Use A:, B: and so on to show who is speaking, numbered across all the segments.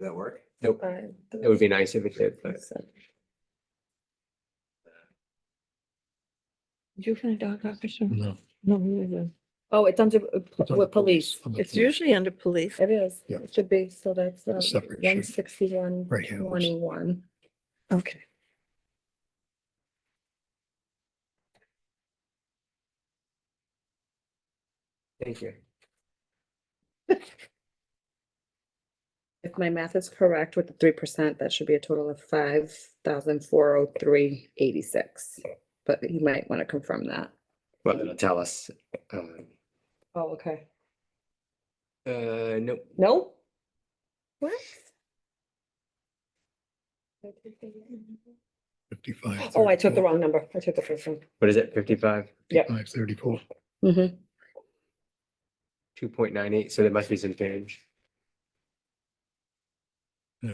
A: that work?
B: Nope, it would be nice if it did, but
C: Did you find dog officer?
D: No.
C: No, we didn't.
E: Oh, it's under, uh,
D: It's under
E: with police.
D: under
C: It's
D: police,
C: usually under police.
E: It is.
D: Yeah.
E: It should be, so that's um,
D: It's a separate sheet.
E: one sixty-one,
D: Right here.
E: twenty-one.
C: Okay.
B: thank you.
E: If my math is correct with the three percent, that should be a total of five thousand four oh three eighty-six. But you might want to confirm that.
B: Well, it'll tell us. um,
E: Oh, okay.
B: Uh, nope,
E: No? What?
D: Fifty-five.
E: Oh, I took the wrong number. I took the first one.
B: what is it, fifty-five,
E: yeah.
D: Five thirty-four.
E: Mm-hmm.
B: two point nine eight, so there must be some change.
D: Uh,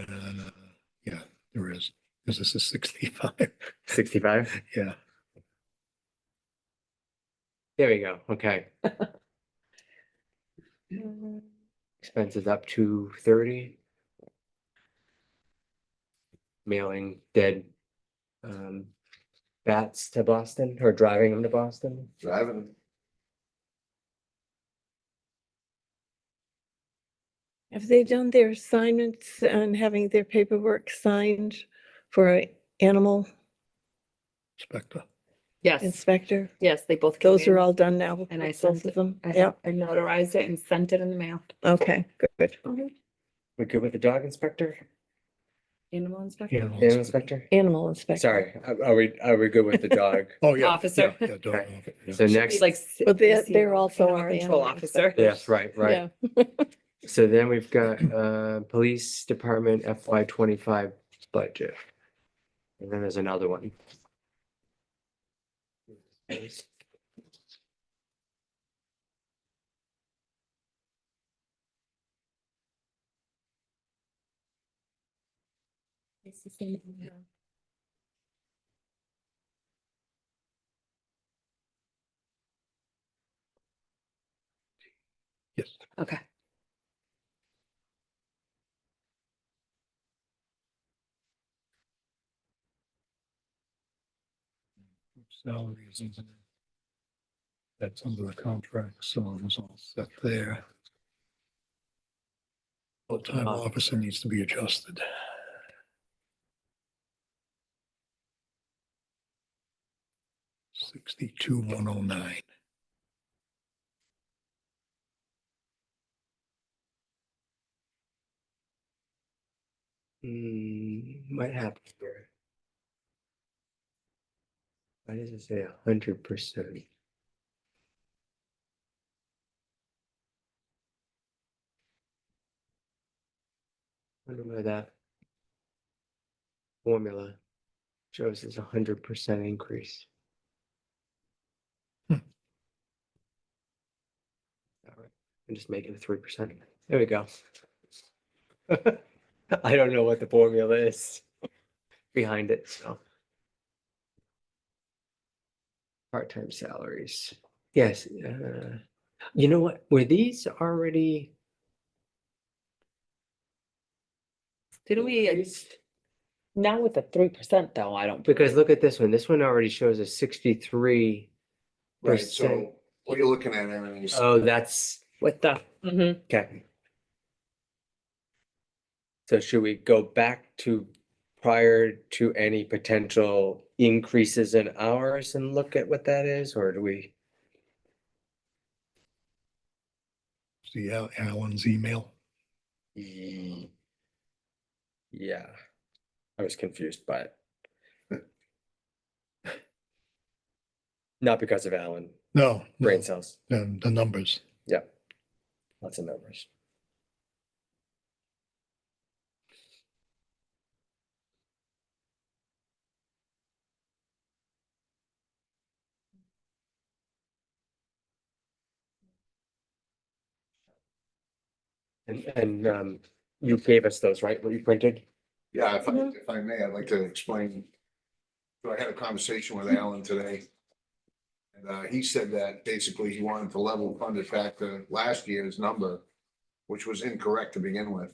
D: yeah, there is, because this is sixty-five,
B: Sixty-five,
D: yeah.
B: there we go, okay.
C: Mm-hmm.
B: Expenses up to thirty. Mailing dead. Um, bats to Boston or driving them to Boston.
A: Driving.
C: Have they done their assignments and having their paperwork signed for a animal
D: Spectre.
E: Yes,
C: inspector?
E: yes, they both.
C: Those
E: came
C: are
E: in.
C: all done now.
E: And I
C: with
E: sent
C: Both of
E: it-
C: them.
E: I
C: Yeah,
E: I notarized it and sent it in the mail.
C: okay, good.
B: We're good with the dog inspector,
E: Animal inspector.
D: Animal
B: animal
D: inspector.
B: inspector?
C: Animal inspector.
B: Sorry, are are we, are we good with the dog?
D: Oh, yeah.
E: Officer.
D: yeah, yeah, dog
B: Okay.
D: officer, yeah.
B: So next,
E: Like.
C: But they're, they're also
E: animal
C: our
E: Control
C: animal
E: officer.
B: yes, right, right.
C: Yeah.
B: So then we've got uh police department FY twenty-five budget. And then there's another one.
D: Yes.
E: Okay.
D: Salaries. and- That's under the contract, so it's all set there. Full-time
E: Uh-huh.
B: Uh,
D: officer needs to be adjusted. Sixty-two, one oh nine.
B: Hmm, might happen here. Why does it say a hundred percent? Wonder why that. Formula shows it's a hundred percent increase.
D: Hmm.
B: Alright, I'm just making a three percent, there we go. I don't know what the formula is behind it, so. Part-time salaries, yes, uh, you know what, were these already?
E: Didn't we, uh,
B: increased?
E: now with the three percent though, I don't.
B: Because look at this one, this one already shows a sixty-three.
A: Right,
B: Percent.
A: so what you're looking at, I mean,
B: Oh, that's,
E: With the.
C: Mm-hmm.
E: Mhm.
B: okay. So should we go back to prior to any potential increases in hours and look at what that is, or do we?
D: See Al- Alan's email?
B: Ye- Mm. Yeah, I was confused by it. Not because of Alan,
D: No. no,
B: brain cells,
D: um, The numbers.
B: lots of numbers. And, and, um, you gave us those, right, what you printed?
A: yeah, if I, if I may, I'd like to explain. So I had a conversation with Alan today. And, uh, he said that basically he wanted to level fund it back to last year's number, which was incorrect to begin with.